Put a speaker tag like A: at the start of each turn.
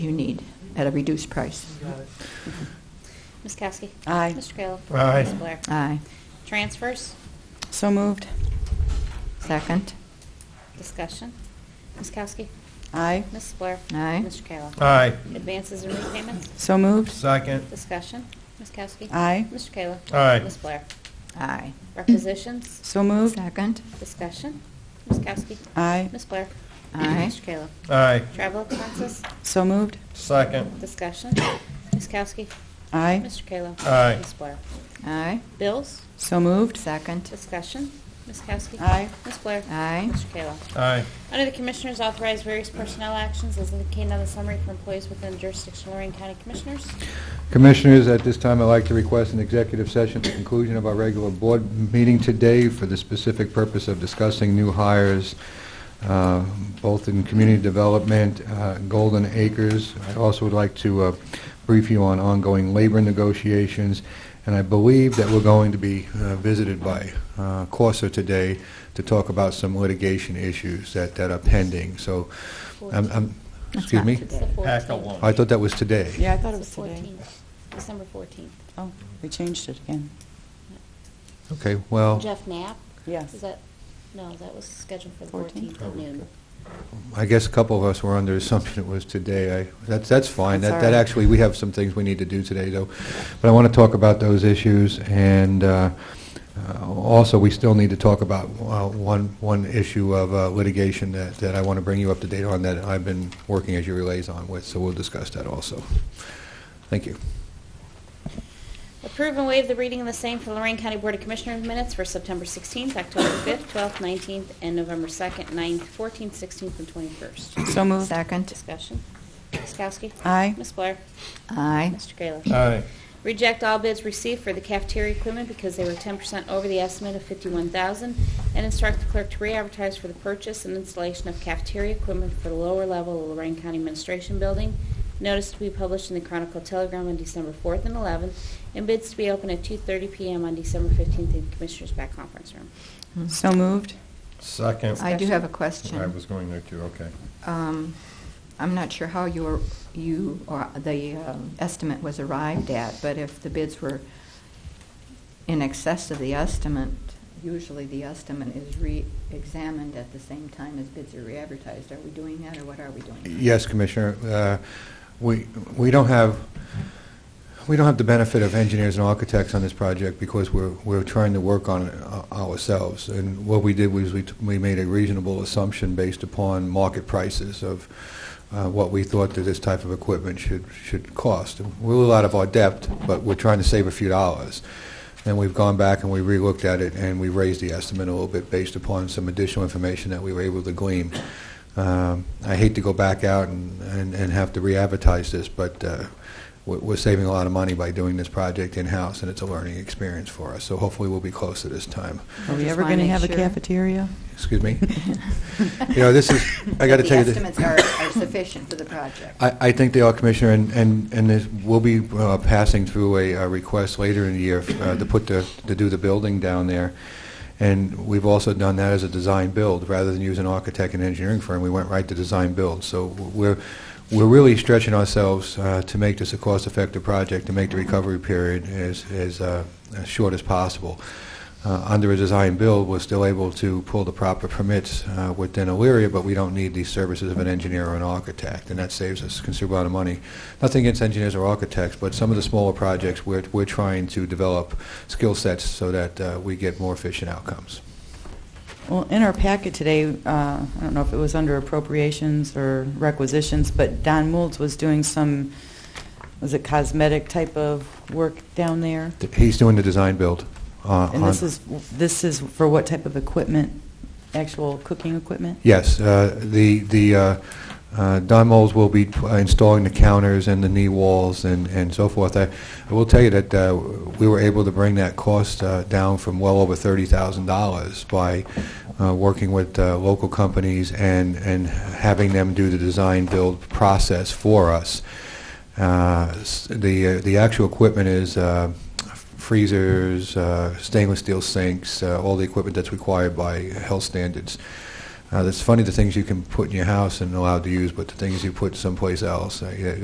A: you need at a reduced price.
B: Ms. Kowski?
C: Aye.
B: Mr. Kayla?
D: Aye.
B: Ms. Blair?
A: Aye.
B: Transfers?
C: So moved.
A: Second.
B: Discussion. Ms. Kowski?
C: Aye.
B: Ms. Blair?
A: Aye.
B: Mr. Kayla?
D: Aye.
B: Advances and repayments?
C: So moved.
D: Second.
B: Discussion. Ms. Kowski?
C: Aye.
B: Mr. Kayla?
D: Aye.
B: Ms. Blair?
A: Aye.
B: Requisitions?
C: So moved.
A: Second.
B: Discussion. Ms. Kowski?
C: Aye.
B: Ms. Blair?
A: Aye.
B: Mr. Kayla?
D: Aye.
B: Travel expenses?
C: So moved.
D: Second.
B: Discussion. Ms. Kowski?
C: Aye.
B: Mr. Kayla?
D: Aye.
B: Ms. Blair?
A: Aye.
B: Bills?
C: So moved.
A: Second.
B: Discussion. Ms. Kowski?
C: Aye.
B: Ms. Blair?
A: Aye.
B: Mr. Kayla?
D: Aye.
B: Under the Commissioners, authorize various personnel actions as indicated on the summary for employees within jurisdiction of Lorraine County Commissioners.
E: Commissioners, at this time, I'd like to request an executive session at the conclusion of our regular board meeting today for the specific purpose of discussing new hires, uh, both in community development, uh, Golden Acres. I also would like to uh, brief you on ongoing labor negotiations, and I believe that we're going to be uh, visited by uh, Corsa today to talk about some litigation issues that that are pending. So, I'm- I'm-
A: That's
E: excuse
A: not
E: me?
A: today.
B: It's the
D: Pack a
B: 14th.
D: lunch.
E: I thought that was today.
C: Yeah, I thought it was
B: It's the
C: today.
B: 14th, December 14th.
C: Oh, we changed it again.
E: Okay, well...
B: Jeff Knapp,
C: Yes.
B: is that, no, that was scheduled for the
C: 14th?
B: 14th at noon.
E: I guess a couple of us were under the assumption it was today. I, that's, that's fine.
C: That's
E: That,
C: all
E: that
C: right.
E: actually, we have some things we need to do today, though. But I want to talk about those issues, and uh, uh, also, we still need to talk about uh, one, one issue of uh, litigation that, that I want to bring you up to date on that I've been working as your liaison with, so we'll discuss that also. Thank you.
B: Approve and waive the reading of the same for Lorraine County Board of Commissioners minutes for September 16th, October 5th, 12th, 19th, and November 2nd, 9th, 14th, 16th, and 21st.
C: So moved.
A: Second.
B: Discussion. Ms. Kowski?
C: Aye.
B: Ms. Blair?
A: Aye.
B: Mr. Kayla?
D: Aye.
B: Reject all bids received for the cafeteria equipment because they were 10% over the estimate of 51000 and instruct the clerk to re-advertise for the purchase and installation of cafeteria equipment for the lower level of Lorraine County Administration Building. Notice to be published in the Chronicle Telegram on December 4th and 11th, and bids to be open at 2:30 PM on December 15th in Commissioners' back conference room.
A: Mm-hmm.
C: So moved.
D: Second.
A: I do have a
D: I
A: question.
D: was going there too, okay.
A: Um, I'm not sure how your, you, or the um, estimate was arrived at, but if the bids were in excess of the estimate, usually the estimate is re-examined at the same time as bids are re-advertised. Are we doing that, or what are we doing?
E: Yes, Commissioner, Uh, we we don't have, we don't have the benefit of engineers and architects on this project because we're we're trying to work on it uh, ourselves. And what we did was we t- we made a reasonable assumption based upon market prices of uh, what we thought that this type of equipment should should cost. And We're a little out of our depth, but we're trying to save a few dollars. And we've gone back and we relooked at it, and we raised the estimate a little bit based upon some additional information that we were able to glean. Um, I hate to go back out and, and and have to re-advertise this, but uh, we're we're saving a lot of money by doing this project in-house, and it's a learning experience for us, so hopefully we'll be closer this time.
C: Are we
A: Just
C: ever
A: wanna
C: going to
A: make
C: have a
A: sure.
C: cafeteria?
E: Excuse me? You know, this is, I got to tell you,
A: The
E: this-
A: estimates are are sufficient for the project.
E: I I think they are, Commissioner, and and and this- we'll be uh, passing through a uh, request later in the year uh, to put the, to do the building down there, and we've also done that as a design-build, rather than use an architect and engineering firm, we went right to design-build, so we're we're really stretching ourselves uh, to make this a cost-effective project, to make the recovery period as as uh, as short as possible. Uh, Under a design-build, we're still able to pull the proper permits uh, within Elyria, but we don't need the services of an engineer or an architect, and that saves us a considerable amount of money. Nothing against engineers or architects, but some of the smaller projects, we're we're trying to develop skill sets so that uh, we get more efficient outcomes.
C: Well, in our packet today, uh, I don't know if it was under appropriations or requisitions, but Don Moulds was doing some, was it cosmetic type of work down there?
E: He's doing the design-build. uh,
C: And this
E: on-
C: is, this is for what type of equipment? Actual cooking equipment?
E: Yes, uh, the, the uh, uh, Don Moles will be uh, installing the counters and the knee walls and and so forth. I I will tell you that uh, we were able to bring that cost uh, down from well over $30,000 by uh, working with uh, local companies and and having them do the design-build process for us. Uh, s- The uh, the actual equipment is uh, freezers, uh, stainless steel sinks, uh, all the equipment that's required by health standards. Uh, It's funny the things you can put in your house and allowed to use, but the things you put someplace else, uh, yeah,